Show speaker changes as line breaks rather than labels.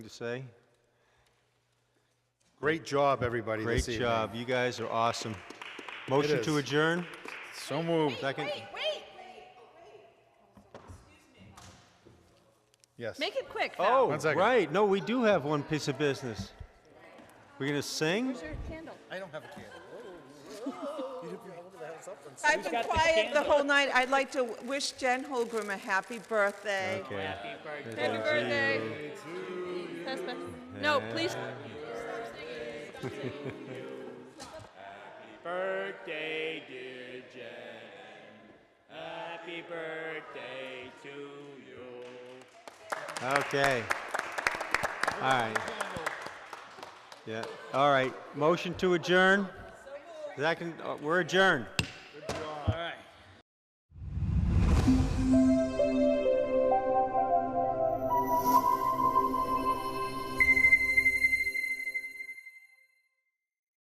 to say?
Great job, everybody,
Great
this evening.
job. You guys are awesome. Motion to
is.
adjourn?
So moved.
Second?
Yes.
Make it quick now.
Oh,
One second.
right. No, we do have one piece of business. We're going to sing?
Where's your candle?
I don't have a candle.
I've been quiet the whole night. I'd like to wish Jen Holgram a happy birthday.
Okay.
Happy birthday. Husband. No, please.
birthday, dear Jen. Happy birthday to you.
Okay. All right. Yeah, all right. Motion to adjourn? Second, uh, we're adjourned.